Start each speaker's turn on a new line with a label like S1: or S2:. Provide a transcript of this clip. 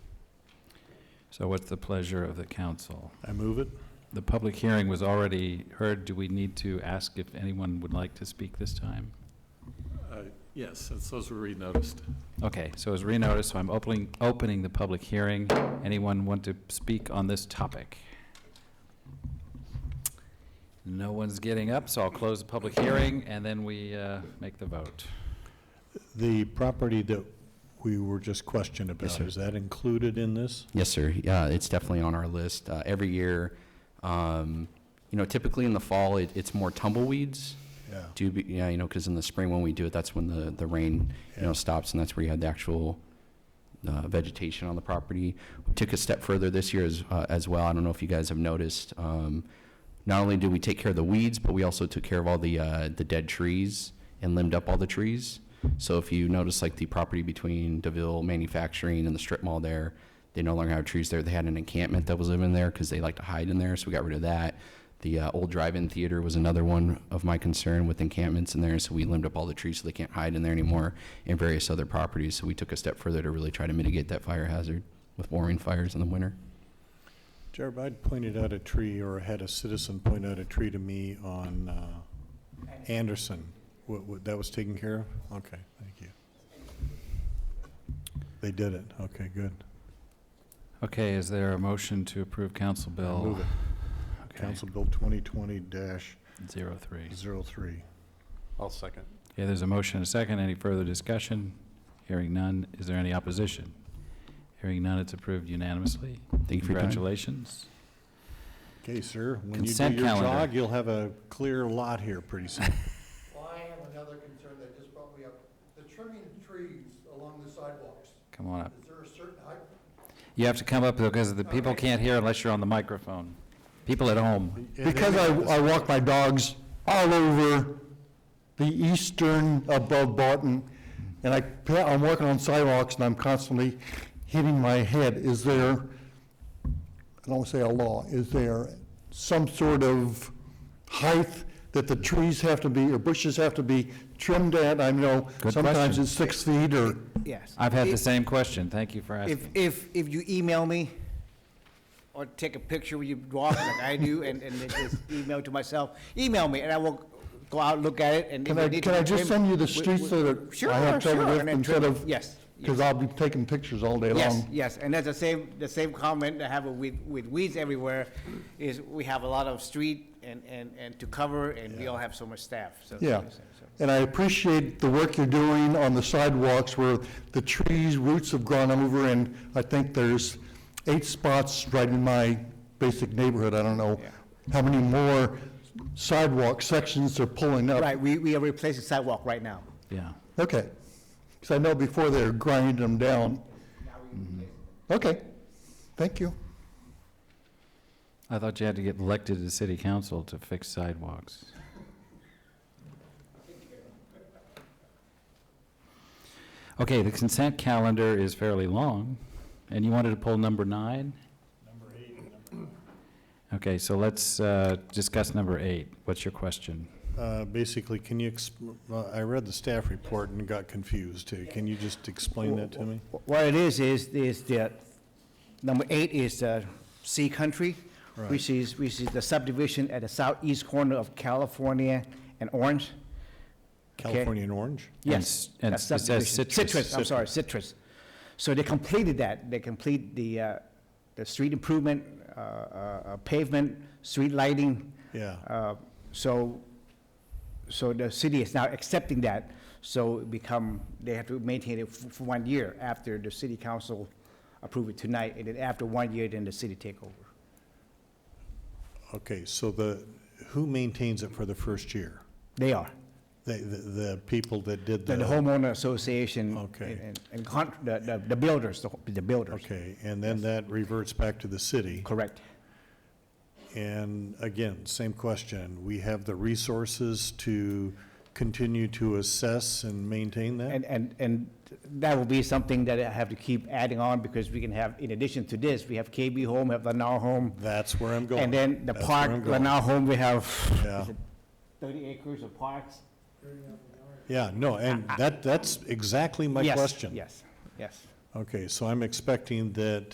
S1: So what's the pleasure of the council?
S2: I move it.
S1: The public hearing was already heard. Do we need to ask if anyone would like to speak this time?
S2: Uh, Yes, it's those were renoticed.
S1: Okay, so as renoticed, so I'm opening, opening the public hearing. Anyone want to speak on this topic? No one's getting up, so I'll close the public hearing, and then we uh, make the vote.
S2: The property that we were just questioned about,
S3: sir.
S2: is that included in this?
S3: Yes, sir. Yeah, it's definitely on our list. Uh, every year, um, you know, typically in the fall, it, it's more tumbleweeds.
S2: Yeah.
S3: Do be, yeah, you know, because in the spring when we do it, that's when the, the rain, you
S2: Yeah.
S3: know, stops, and that's where you had the actual uh, vegetation on the property. We took a step further this year as, uh, as well. I don't know if you guys have noticed. Um, not only did we take care of the weeds, but we also took care of all the uh, the dead trees and limbed up all the trees. So if you notice, like the property between Deville Manufacturing and the strip mall there, they no longer have trees there. They had an encampment that was living there because they like to hide in there, so we got rid of that. The uh, old drive-in theater was another one of my concern with encampments in there, so we limbed up all the trees so they can't hide in there anymore, and various other properties. So we took a step further to really try to mitigate that fire hazard with warming fires in the winter.
S2: Jared, I'd pointed out a tree, or had a citizen point out a tree to me on uh, Anderson. What- what- That was taken care of? Okay, thank you. They did it. Okay, good.
S1: Okay, is there a motion to approve Council
S2: I
S1: Bill
S2: Move it.
S1: Oh, okay,
S2: Council Bill 2020-03.
S1: 03?
S2: I'll second.
S1: Okay, there's a motion and a second. Any further discussion? Hearing none. Is there any opposition? Hearing none, it's approved unanimously.
S3: Thank you for your time.
S1: Congratulations.
S2: Okay, sir, when you do
S1: Consent
S2: your
S1: calendar.
S2: jog, you'll have a clear lot here pretty soon.
S4: Well, I have another concern that just brought me up. The trimming trees along the sidewalks,
S1: Come on up.
S4: is there a certain height?
S1: You have to come up because the people can't hear unless you're on the microphone. People at home.
S5: Because I, I walk my dogs all over the eastern above Barton, and I, pa- I'm walking on sidewalks and I'm constantly hitting my head. Is there, I don't want to say a law, is there some sort of height that the trees have to be, or bushes have to be trimmed at? I know
S1: Good
S5: sometimes
S1: question.
S5: it's six feet or,
S6: Yes.
S1: I've had the
S6: If-
S1: same question. Thank you for
S6: If,
S1: asking.
S6: if, if you email me or take a picture when you walk like I do and, and then just email to myself, email me and I will go out, look at it and. if
S5: can
S6: it
S5: I,
S6: need
S5: can
S6: to
S5: I
S6: be
S5: just
S6: trimmed,
S5: send you the
S6: we-
S5: streets
S6: we-
S5: that
S6: Sure,
S5: I have trouble
S6: sure,
S5: with
S6: and then
S5: instead
S6: trim-
S5: of?
S6: Yes. yes.
S5: Because I'll be taking pictures all day long.
S6: Yes, yes, and that's the same, the same comment I have with, with weeds everywhere, is we have a lot of street and, and, and to cover, and we all have so much staff, so.
S5: Yeah,
S6: so- so-
S5: and I appreciate the work you're doing on the sidewalks where the trees, roots have gone over, and I think there's eight spots right in my basic neighborhood, I don't know
S6: Yeah.
S5: how many more sidewalk sections they're pulling up.
S6: Right, we, we are replacing sidewalk right now.
S1: Yeah.
S5: Okay, because I know before they were grinding them down. Mm-hmm. Okay, thank you.
S1: I thought you had to get elected to city council to fix sidewalks. Okay, the consent calendar is fairly long, and you wanted to pull number nine? Number eight. Okay, so let's uh, discuss number eight. What's your question?
S2: Uh, Basically, can you, exp- well, I read the staff report and got confused too. Can you just explain that to me?
S6: Wh- What it is, is, is that, number eight is uh, Sea Country, which is, which is the subdivision at the southeast corner of California and Orange. Okay.
S2: California and Orange?
S1: And
S6: Yes.
S1: s- and
S6: that's
S1: it says
S6: subdivision.
S1: citrus.
S6: Citrus, I'm sorry, citrus. So they completed that, they complete the, uh, the street improvement, uh, uh, pavement, street lighting.
S2: Yeah.
S6: Uh, So, so the city is now accepting that, so it become, they have to maintain it f- for one year after the city council approve it tonight, and then after one year, then the city take over.
S2: Okay, so the, who maintains it for the first year?
S6: They are,
S2: The, the the people that did
S6: the
S2: the.
S6: the homeowner association.
S2: Okay.
S6: and- And, and con, the, the- the builders, the ho- the builders,
S2: Okay, and then that reverts back to the city.
S6: correct.
S2: And again, same question. We have the resources to continue to assess and maintain that?
S6: And, and, and that will be something that I have to keep adding on, because we can have, in addition to this, we have KB Home, have Lanao Home,
S2: That's where I'm going.
S6: and then the
S2: That's where I'm
S6: park,
S2: going.
S6: Lanao Home, we have,
S2: Yeah.
S6: is it thirty acres of parks?
S2: Yeah, no, and that, that's exactly my
S6: Yes,
S2: question.
S6: Yes, yes.
S2: Okay, so I'm expecting that